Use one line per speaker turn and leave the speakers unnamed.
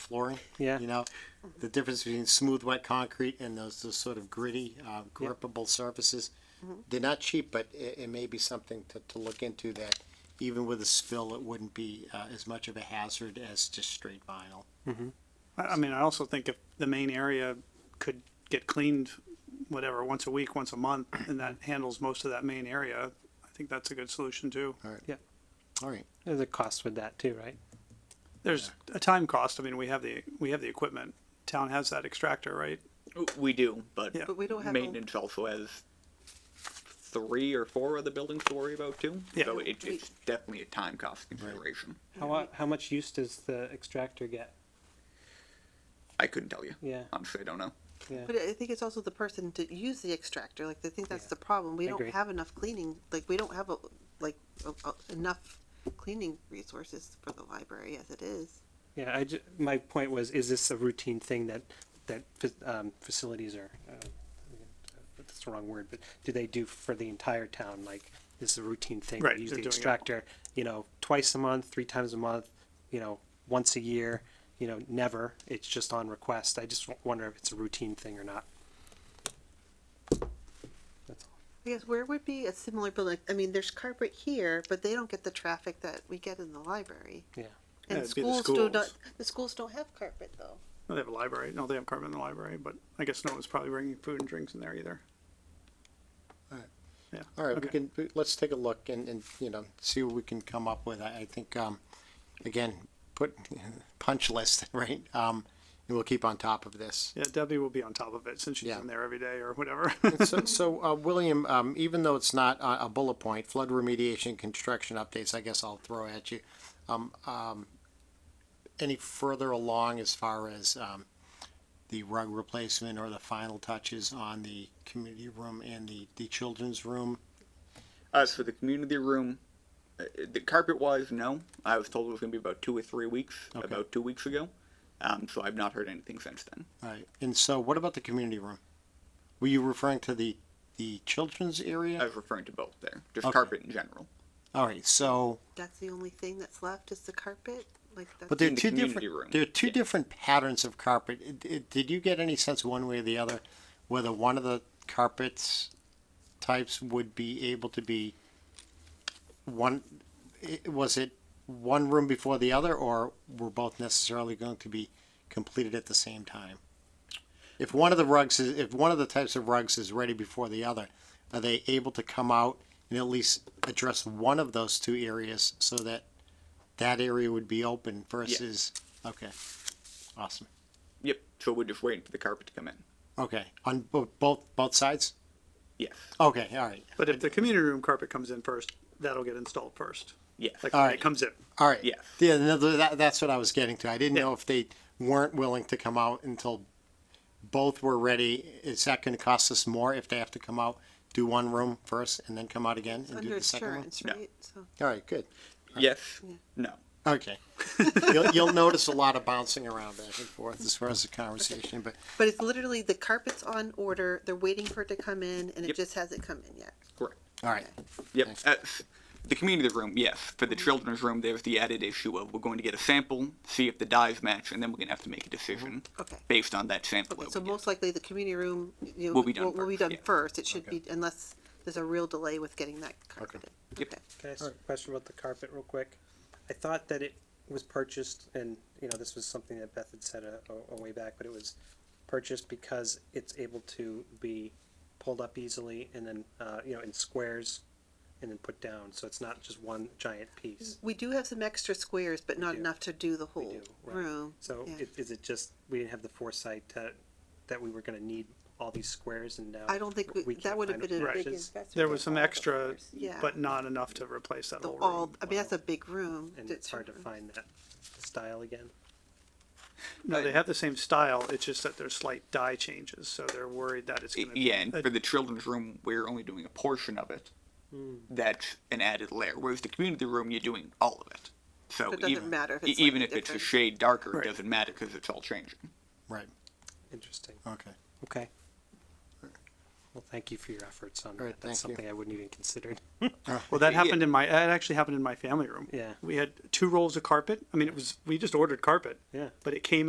flooring.
Yeah.
You know, the difference between smooth, wet concrete and those, those sort of gritty, uh, grippable surfaces. They're not cheap, but it, it may be something to, to look into that even with a spill, it wouldn't be uh, as much of a hazard as just straight vinyl.
I, I mean, I also think if the main area could get cleaned, whatever, once a week, once a month, and that handles most of that main area, I think that's a good solution too.
All right.
Yeah.
All right.
There's a cost with that too, right?
There's a time cost. I mean, we have the, we have the equipment. Town has that extractor, right?
We do, but
Yeah.
But we don't have a-
maintenance also has three or four other buildings to worry about too.
Yeah.
So it,
We-
it's definitely a time cost consideration.
How, mu- how much use does the extractor get?
I couldn't tell you.
Yeah.
Honestly, I don't know.
Yeah.
But I think it's also the person to use the extractor. Like I think that's the problem. We don't
Agree.
have enough cleaning. Like we don't have a, like a, a- enough cleaning resources for the library as it is.
Yeah, I ju- my point was, is this a routine thing that, that, fa- um, facilities are, uh, that's the wrong word, but do they do for the entire town? Like, this is a routine thing?
Right,
We Use
they're
the
doing it.
extractor, you know, twice a month, three times a month, you know, once a year, you know, never. It's just on request. I just w- wonder if it's a routine thing or not. That's all.
I guess where would be a similar building? I mean, there's carpet here, but they don't get the traffic that we get in the library.
Yeah.
And
Yeah, it'd be the
schools, do not.
schools.
The schools don't have carpet though.
No, They have a library. No, they have carbon in the library, but I guess no one's probably bringing food and drinks in there either.
Alright.
Yeah.
All right,
Okay.
we can, we- let's take a look and, and, you know, see what we can come up with. I, I think, um, again, put punch list, right? Um, and we'll keep on top of this.
Yeah, Debbie will be on top of it since she's
Yeah.
in there every day or whatever.
So, so, uh, William, um, even though it's not a, a bullet point, flood remediation, construction updates, I guess I'll throw at you. Um, um, any further along as far as, um, the rug replacement or the final touches on the community room and the, the children's room?
Uh, so the community room, uh, the carpet wise, no. I was told it was going to be about two or three weeks,
Okay.
about two weeks ago. Um, so I've not heard anything since then.
All right, Uh, and so what about the community room? Were you referring to the, the children's
I
area?
was referring to both there, just
Okay.
carpet in general.
All right, so.
That's the only thing that's left is the carpet. Like that's
But there are
in the
two
community
different.
room.
There are two
Yeah.
different patterns of carpet. It- it- did you get any sense one way or the other whether one of the carpets types would be able to be one? i was it one room before the other, or were both necessarily going to be completed at the same time? If one of the rugs is, if one of the types of rugs is ready before the other, are they able to come out and at least address one of those two areas so that that area would be open versus, okay, awesome.
Yep. So we're just waiting for the carpet to come in.
Okay, on bo- both, both sides?
Yes.
Okay, all right,
But if the community room carpet comes in first, that'll get installed first.
Yes.
Like
All
when
right.
it comes in.
all right.
Yes.
Yeah, no, th- that, that's what I was getting to. I didn't know if they weren't willing to come out until both were ready. Is that gonna cost us more if they have to come out, do one room first and then come out again and do
under
the second one?
insurance,
No.
right? So
All right, good.
yes. No.
Okay. You'll, you'll notice a lot of bouncing around back and forth as far as the conversation, but
But it's literally the carpet's on order. They're waiting for it to come in, and it
Yep.
just hasn't come in yet.
Correct.
all right.
Yep. Uh, the community room, yes. For the children's room, there's the added issue of we're going to get a sample, see if the dyes match, and then we're going to have to make a decision
Mm-hmm. Okay.
based on that sample.
Okay,
that
so
we get.
most likely the community room you know,
Will be done
Will be
first,
done
yeah.
first. It should be unless there's a real delay with getting that carpet in.
Yep.
Okay.
Can I ask a question about the carpet real quick? I thought that it was purchased, and, you know, this was something that Beth had said a, a- a way back, but it was purchased because it's able to be pulled up easily and then, uh, you know, in squares and then put down, so it's not just one giant piece.
We do have some extra squares, but not
do.
enough to do the whole
you know, right?
room.
So
yeah.
i- is it just, we didn't have the foresight that, that we were gonna need all these squares and now?
I don't think we- that
uh, can't
would've
find
been a big
options?
There was some extra,
Yeah.
but not enough to replace that
the,
whole
all.
room.
I mean, that's a big room.
And
the
it's
two
hard to
rooms.
find that style again?
No, they have the same style. It's just that there's slight dye changes, so they're worried that it's gonna.
Yeah, and
uh,
for the children's room, we're only doing a portion of it. That's an added layer. Whereas the community room, you're doing all of it. So
But it doesn't
even,
matter if
e-
it's
even if
slightly
it's a
different.
shade darker,
Right.
it doesn't matter because it's all changing.
Right,
Interesting.
okay.
Okay. Well, thank you for your efforts on
All right,
that. That's
thank you.
something I wouldn't even considered.
Well, that
Yeah.
happened in my, that actually happened in my family room.
Yeah.
We had two rolls of carpet. I mean, it was, we just ordered carpet.
Yeah.
But it came in.